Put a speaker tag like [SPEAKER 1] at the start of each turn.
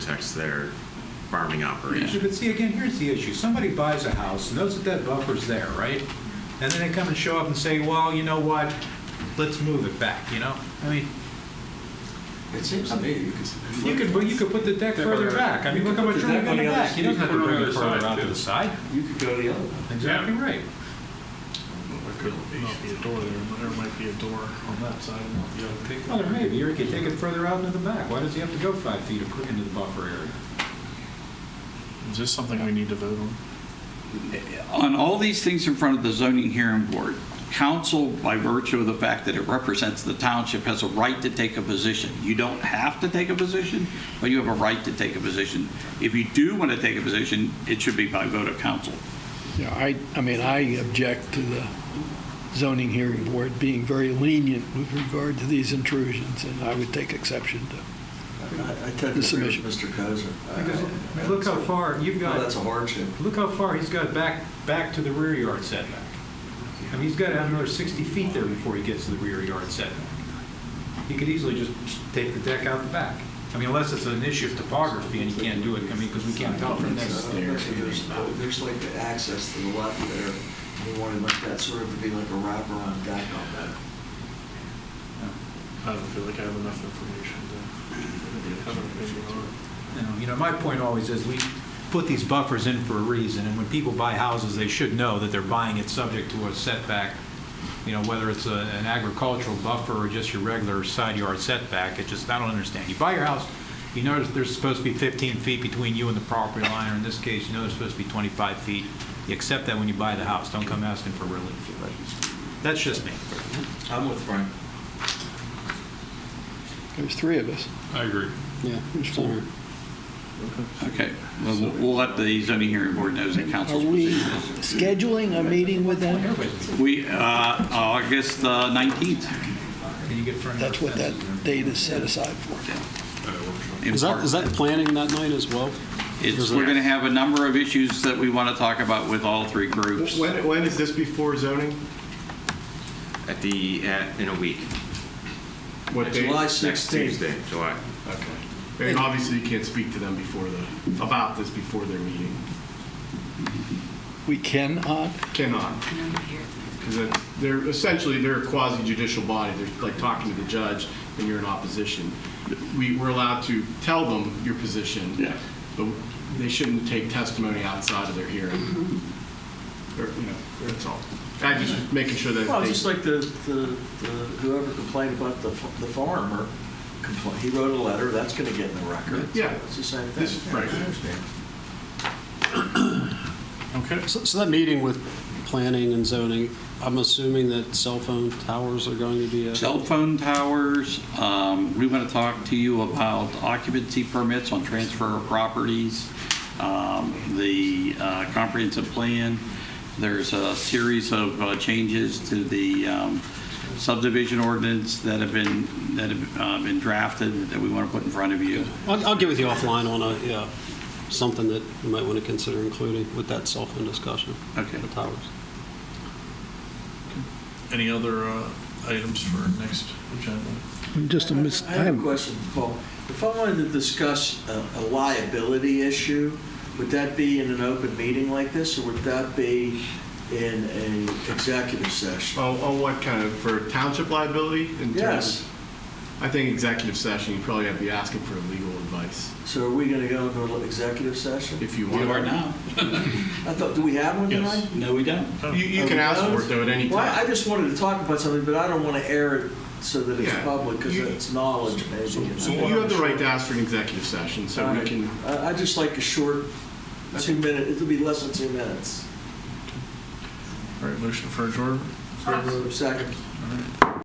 [SPEAKER 1] affects their farming
[SPEAKER 2] Yeah,
[SPEAKER 1] operation.
[SPEAKER 2] But see, again, here's the issue. Somebody buys a house, knows that that buffer's there, right? And then they come and show up and say, well, you know what, let's move it back, you know? I mean,
[SPEAKER 3] It seems to me you could.
[SPEAKER 2] you could, you could put the deck
[SPEAKER 4] Deck
[SPEAKER 2] further
[SPEAKER 4] on the-
[SPEAKER 2] back. I mean, look how much
[SPEAKER 3] Put the
[SPEAKER 2] room you
[SPEAKER 3] deck
[SPEAKER 2] got
[SPEAKER 3] on
[SPEAKER 2] in the
[SPEAKER 3] the other-
[SPEAKER 2] back. He doesn't have to
[SPEAKER 4] put it on
[SPEAKER 2] bring
[SPEAKER 4] the
[SPEAKER 2] it
[SPEAKER 4] other
[SPEAKER 2] further
[SPEAKER 4] side,
[SPEAKER 2] out to
[SPEAKER 4] too.
[SPEAKER 2] the side.
[SPEAKER 3] You could go the other way.
[SPEAKER 2] Exactly right.
[SPEAKER 4] Might be a door there, but there might be a door on that side and not the other.
[SPEAKER 2] Well, there may be, or he could take it further out into the back. Why does he have to go five feet ac- into the buffer area?
[SPEAKER 4] Is this something we need to vote on?
[SPEAKER 5] On all these things in front of the zoning hearing board, council, by virtue of the fact that it represents the township, has a right to take a position. You don't have to take a position, but you have a right to take a position. If you do want to take a position, it should be by vote of council.
[SPEAKER 6] Yeah, I, I mean, I object to the zoning hearing board being very lenient with regard to these intrusions, and I would take exception to.
[SPEAKER 3] I I tend to
[SPEAKER 6] Mr.
[SPEAKER 3] agree
[SPEAKER 6] Bishop.
[SPEAKER 3] with Mr. Kozer.
[SPEAKER 2] Because, I mean, look how far you've
[SPEAKER 3] Uh, Well, that's
[SPEAKER 2] got,
[SPEAKER 3] a hardship.
[SPEAKER 2] look how far he's got back, back to the rear yard setback. I mean, he's got to have another 60 feet there before he gets to the rear yard setback. He could easily just take the deck out the back. I mean, unless it's an issue of topography and he can't do it, I mean, because we can't tell from
[SPEAKER 3] That's-
[SPEAKER 2] this.
[SPEAKER 3] uh, There's there's like the access to the left there. You wanted like that sort of to be like a wraparound deck on that.
[SPEAKER 4] I don't feel like I have enough information to have an opinion on it.
[SPEAKER 2] You know, You know, my point always is, we put these buffers in for a reason, and when people buy houses, they should know that they're buying it subject to a setback, you know, whether it's a- an agricultural buffer or just your regular side yard setback, it just, I don't understand. You buy your house, you notice there's supposed to be 15 feet between you and the property line, or in this case, you know there's supposed to be 25 feet. You accept that when you buy the house, don't come asking for relief. That's just me.
[SPEAKER 7] I'm with Frank.
[SPEAKER 6] There's three of us.
[SPEAKER 4] I agree.
[SPEAKER 6] Yeah. There's four.
[SPEAKER 5] Okay, well, we'll we'll let the zoning hearing board know that
[SPEAKER 6] Are
[SPEAKER 5] council's
[SPEAKER 6] we
[SPEAKER 5] position.
[SPEAKER 6] scheduling a meeting with them?
[SPEAKER 2] Everybody's-
[SPEAKER 5] We, uh, August uh, 19th.
[SPEAKER 2] Can you get front yard
[SPEAKER 6] That's what that
[SPEAKER 2] fences in?
[SPEAKER 6] date is set aside for.
[SPEAKER 5] in
[SPEAKER 8] Is that,
[SPEAKER 5] part.
[SPEAKER 8] is that planning that night as well?
[SPEAKER 5] It's, we're going to have a number of issues that we want to talk about with all three groups.
[SPEAKER 9] When, when is this before zoning?
[SPEAKER 1] At the, at- in a week,
[SPEAKER 9] What date?
[SPEAKER 3] July
[SPEAKER 1] next
[SPEAKER 3] 16th.
[SPEAKER 1] Tuesday, July.
[SPEAKER 9] Okay. And obviously, you can't speak to them before the, about this before their meeting.
[SPEAKER 6] We cannot,
[SPEAKER 9] Cannot. Because they're, essentially, they're a quasi judicial body. They're like talking to the judge, and you're in opposition. We, we're allowed to tell them your position.
[SPEAKER 5] Yeah.
[SPEAKER 9] But they shouldn't take testimony outside of their hearing. Or, you know, that's all. i just was making sure that they.
[SPEAKER 3] Mm-hmm. Well, just like the, the, the- whoever complained about the, f- the farmer complained, he wrote a letter, that's gonna get in the record.
[SPEAKER 9] Yeah.
[SPEAKER 3] It's the same
[SPEAKER 9] This-
[SPEAKER 3] thing.
[SPEAKER 9] right.
[SPEAKER 3] I understand.
[SPEAKER 4] Okay.
[SPEAKER 8] So, so that meeting with planning and zoning, I'm assuming that cell phone towers are going to be a.
[SPEAKER 5] Cell phone towers, um, we want to talk to you about occupancy permits on transfer of properties, um, the uh, comprehensive plan. There's a series of uh, changes to the um, subdivision ordinance that have been, that have uh, been drafted that we want to put in front of you.
[SPEAKER 8] I'll, I'll get with you offline on a, yeah, something that you might want to consider including with that cell phone discussion.
[SPEAKER 5] Okay.
[SPEAKER 8] The towers.
[SPEAKER 4] Any other uh, items for next agenda?
[SPEAKER 6] just a mis,
[SPEAKER 3] I have a question, Paul. If I wanted to discuss a a liability issue, would that be in an open meeting like this, or would that be in a executive session?
[SPEAKER 9] On, on Oh, what kind of, for township liability? in terms of-
[SPEAKER 3] Yes.
[SPEAKER 9] I think executive session, you probably have to be asking for legal advice
[SPEAKER 3] So are we gonna go into an executive session?
[SPEAKER 9] if you
[SPEAKER 5] We
[SPEAKER 9] want.
[SPEAKER 5] are now.
[SPEAKER 3] I thought, do we have one
[SPEAKER 4] Yes.
[SPEAKER 3] tonight?
[SPEAKER 5] No, we don't.
[SPEAKER 3] Oh.
[SPEAKER 9] You, you can ask for it though at any
[SPEAKER 3] Well, I I
[SPEAKER 9] time.
[SPEAKER 3] just wanted to talk about something, but I don't want to air it so that it's
[SPEAKER 9] Yeah.
[SPEAKER 3] public, because
[SPEAKER 9] You-
[SPEAKER 3] it's knowledge, maybe. you know.
[SPEAKER 9] So you have the right to ask for an executive session, so
[SPEAKER 3] All
[SPEAKER 9] we
[SPEAKER 3] right.
[SPEAKER 9] can,
[SPEAKER 3] I- I'd just like a short, two minute, it'll be less than two minutes.
[SPEAKER 4] All right, motion for adjournment?
[SPEAKER 3] Second.